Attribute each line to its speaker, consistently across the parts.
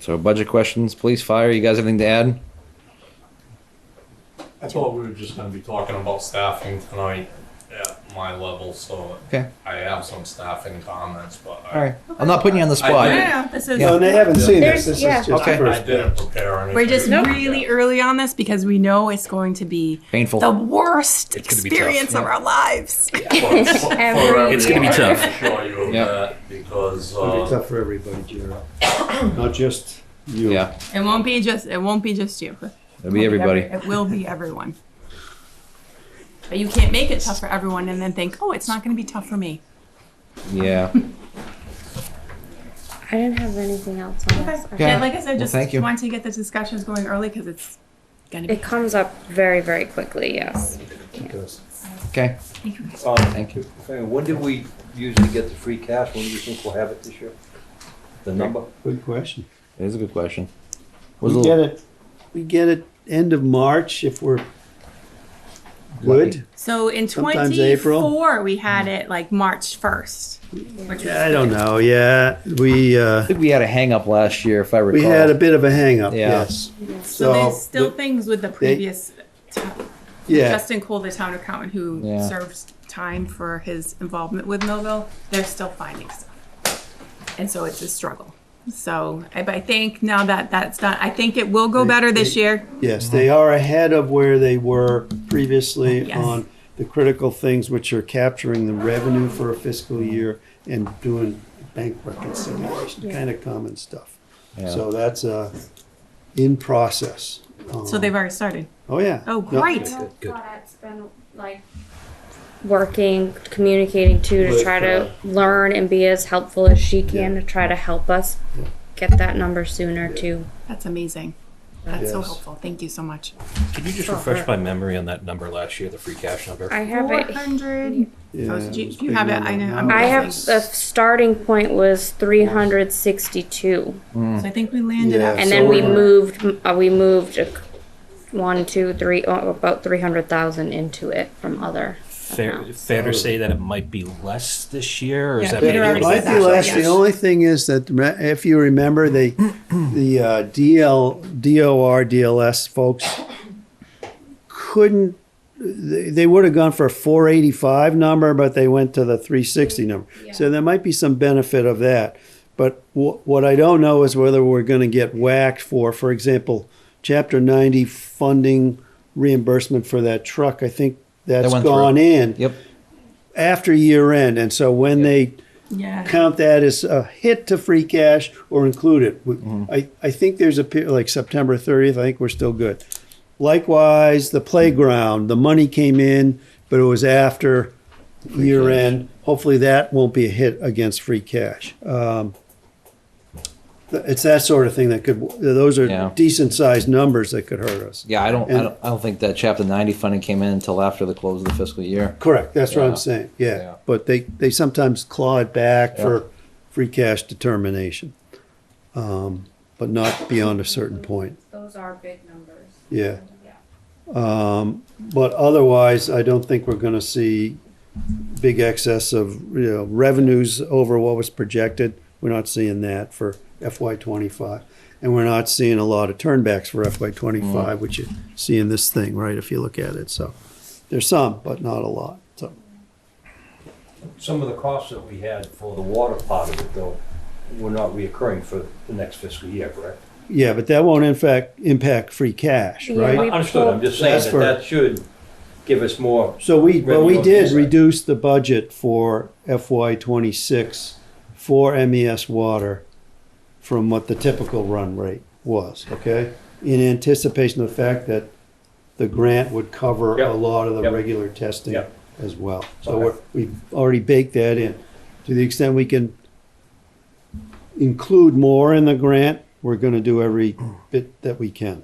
Speaker 1: So budget questions, police, fire. You guys have anything to add?
Speaker 2: That's all we were just gonna be talking about staffing tonight at my level, so
Speaker 1: Okay.
Speaker 2: I have some staffing comments, but
Speaker 1: All
Speaker 2: I,
Speaker 1: right. I'm not putting you on the
Speaker 2: I
Speaker 1: spot.
Speaker 2: did.
Speaker 3: No, no, this is.
Speaker 4: No, and they haven't seen this. This is
Speaker 5: There's-
Speaker 4: just
Speaker 1: yeah.
Speaker 4: the
Speaker 1: Okay.
Speaker 2: I
Speaker 4: first.
Speaker 2: didn't prepare anything.
Speaker 3: We're just
Speaker 2: Yeah.
Speaker 3: really early on this because we know it's going to be
Speaker 1: Painful.
Speaker 3: the worst
Speaker 6: It's gonna be tough,
Speaker 3: experience of
Speaker 1: yeah.
Speaker 3: our lives.
Speaker 2: For- for- for everyone,
Speaker 6: It's gonna be tough.
Speaker 2: I can assure you of
Speaker 1: Yeah.
Speaker 2: that, because,
Speaker 4: It'll
Speaker 2: uh,
Speaker 4: be tough for everybody, Jared. Not just you.
Speaker 1: Yeah,
Speaker 3: It won't be just. It won't be just you.
Speaker 1: it'll be everybody.
Speaker 3: It will be everyone. But you can't make it tough for everyone and then think, oh, it's not going to be tough for me.
Speaker 1: Yeah.
Speaker 5: I didn't have anything else on this. I-
Speaker 1: Yeah.
Speaker 3: Yeah, like I said,
Speaker 1: Well,
Speaker 3: just
Speaker 1: thank you.
Speaker 3: want to get the discussions going early because it's going to be.
Speaker 5: It comes up very, very quickly, yes.
Speaker 4: Because
Speaker 1: Okay.
Speaker 3: Thank you guys.
Speaker 1: Thank you.
Speaker 7: Um, When did we usually get the free cash? When do you think we'll have it this year? The number?
Speaker 4: Good question.
Speaker 1: It is a good question. Was
Speaker 4: We
Speaker 1: a
Speaker 4: get
Speaker 1: little-
Speaker 4: it, we get it end of March if we're good.
Speaker 3: So in
Speaker 4: Sometimes April.
Speaker 3: 24, we had it like March 1st. Which was
Speaker 4: I don't know, yeah. We, uh,
Speaker 1: I think we had a hang up last year, if I recall.
Speaker 4: we had a bit of a hang up,
Speaker 1: Yeah.
Speaker 4: yes.
Speaker 3: So there's
Speaker 4: So
Speaker 3: still
Speaker 4: the-
Speaker 3: things with the previous, town-
Speaker 4: Yeah,
Speaker 3: Justin Cole, the town accountant who
Speaker 1: Yeah.
Speaker 3: served time for his involvement with Millville, they're still finding stuff. And so it's a struggle. So I, but I think now that that's done, I think it will go
Speaker 4: They-
Speaker 3: better this
Speaker 4: they-
Speaker 3: year.
Speaker 4: yes, they are ahead of where they were previously
Speaker 3: Oh, Yes.
Speaker 4: on the critical things which are capturing the revenue for a fiscal year and doing bank reconciliation, kind of common stuff.
Speaker 1: Yeah.
Speaker 4: So that's, uh, in process.
Speaker 3: So
Speaker 4: Um,
Speaker 3: they've already started.
Speaker 4: Oh, yeah.
Speaker 3: Oh,
Speaker 4: No,
Speaker 3: great.
Speaker 6: Good.
Speaker 5: It's been like working, communicating too, to
Speaker 4: With,
Speaker 5: try
Speaker 4: uh,
Speaker 5: to learn and be as helpful as she can to try to help us get that number sooner too.
Speaker 3: That's amazing. That's so
Speaker 4: Yes.
Speaker 3: helpful. Thank you so much.
Speaker 6: Can you just
Speaker 5: Sure.
Speaker 6: refresh my memory on that number last year, the free cash number?
Speaker 5: I have
Speaker 3: Four
Speaker 5: it.
Speaker 3: hundred.
Speaker 4: Yeah,
Speaker 3: Oh, so do you-
Speaker 4: it was
Speaker 3: do you
Speaker 4: big
Speaker 3: have it?
Speaker 4: number.
Speaker 3: I know,
Speaker 4: No,
Speaker 3: I'm-
Speaker 5: I
Speaker 4: it
Speaker 5: have,
Speaker 4: was-
Speaker 5: the starting point was three hundred sixty-two.
Speaker 3: So I think we landed
Speaker 4: Yeah.
Speaker 3: at
Speaker 5: And then we
Speaker 4: Solar.
Speaker 5: moved, uh, we moved a c- one, two, three, oh, about three hundred thousand into it from other.
Speaker 6: Fair,
Speaker 5: accounts.
Speaker 6: fair to say that it might be less this year, or is
Speaker 3: Yeah,
Speaker 6: that maybe a
Speaker 3: Peter
Speaker 4: It
Speaker 3: already
Speaker 6: little
Speaker 4: might
Speaker 6: bit
Speaker 3: said
Speaker 4: be
Speaker 3: that.
Speaker 4: less.
Speaker 6: less?
Speaker 4: The only thing is that, re- if you remember, they, the uh, DL, DOR, DLS folks couldn't, they, they would have gone for a four eighty-five number, but they went to the three sixty number. So there might be some benefit of that. But wh- what I don't know is whether we're gonna get whacked for, for example, chapter ninety funding reimbursement for that truck. I think that's
Speaker 1: went through.
Speaker 4: gone in.
Speaker 1: Yep.
Speaker 4: After year end, and so when they
Speaker 3: Yeah.
Speaker 4: count that as a hit to free cash or include it. We- I, I think there's a, pe- like September 30th, I think we're still good. Likewise, the playground, the money came in, but it was after year end. Hopefully that won't be a hit against free cash. Um, th- It's that sort of thing that could, those
Speaker 1: Yeah.
Speaker 4: are decent sized numbers that could hurt us.
Speaker 1: Yeah, I don't, I
Speaker 4: And-
Speaker 1: don't, I don't think that Chapter 90 funding came in until after the close of the fiscal year.
Speaker 4: Correct, that's what
Speaker 1: Yeah.
Speaker 4: I'm saying,
Speaker 1: Yeah.
Speaker 4: yeah. But they, they sometimes claw it back
Speaker 1: Yeah.
Speaker 4: for free cash determination. Um, But not beyond a certain point,
Speaker 5: Those are big numbers.
Speaker 4: yeah. Um, But otherwise, I don't think we're gonna see big excess of, you know, revenues over what was projected. We're not seeing that for FY twenty-five. And we're not seeing a lot of turnbacks for FY
Speaker 1: Mm.
Speaker 4: twenty-five, which you see in this thing, right, if you look at it, so. There's some, but not a lot, so.
Speaker 7: Some of the costs that we had for the water part of it, though, were not reoccurring for the next fiscal year, correct?
Speaker 4: Yeah, but that won't in fact impact free cash,
Speaker 5: Yeah.
Speaker 4: right?
Speaker 5: we
Speaker 7: Understood, I'm just saying
Speaker 4: That's
Speaker 7: that
Speaker 4: for-
Speaker 7: that should give us more.
Speaker 4: So we, but we
Speaker 7: Revenue
Speaker 4: did
Speaker 7: offset.
Speaker 4: reduce the budget for FY twenty-six for MES water from what the typical run rate was, okay? In anticipation of the fact that the grant would cover a
Speaker 7: Yep.
Speaker 4: lot of the
Speaker 7: Yep.
Speaker 4: regular testing
Speaker 7: Yep.
Speaker 4: as well. So
Speaker 7: Okay.
Speaker 4: we're- we've already baked that in. To the extent we can include more in the grant, we're gonna do every bit that we can.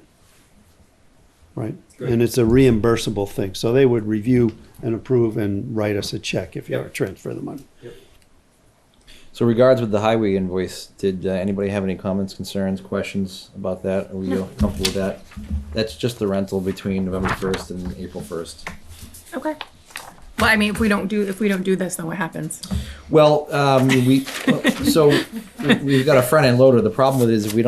Speaker 4: Right? And it's a reimbursable thing, so they would review and approve and write us a check if you ever transfer the money.
Speaker 1: So regards with the highway invoice, did uh, anybody have any comments, concerns, questions about that? Are we all comfortable with that? That's just the rental between November 1st and April 1st.
Speaker 3: Okay. Well, I mean, if we don't do, if we don't do this, then what happens?
Speaker 1: Well, um, we, so we- we've got a front end loader. The problem with it is if we don't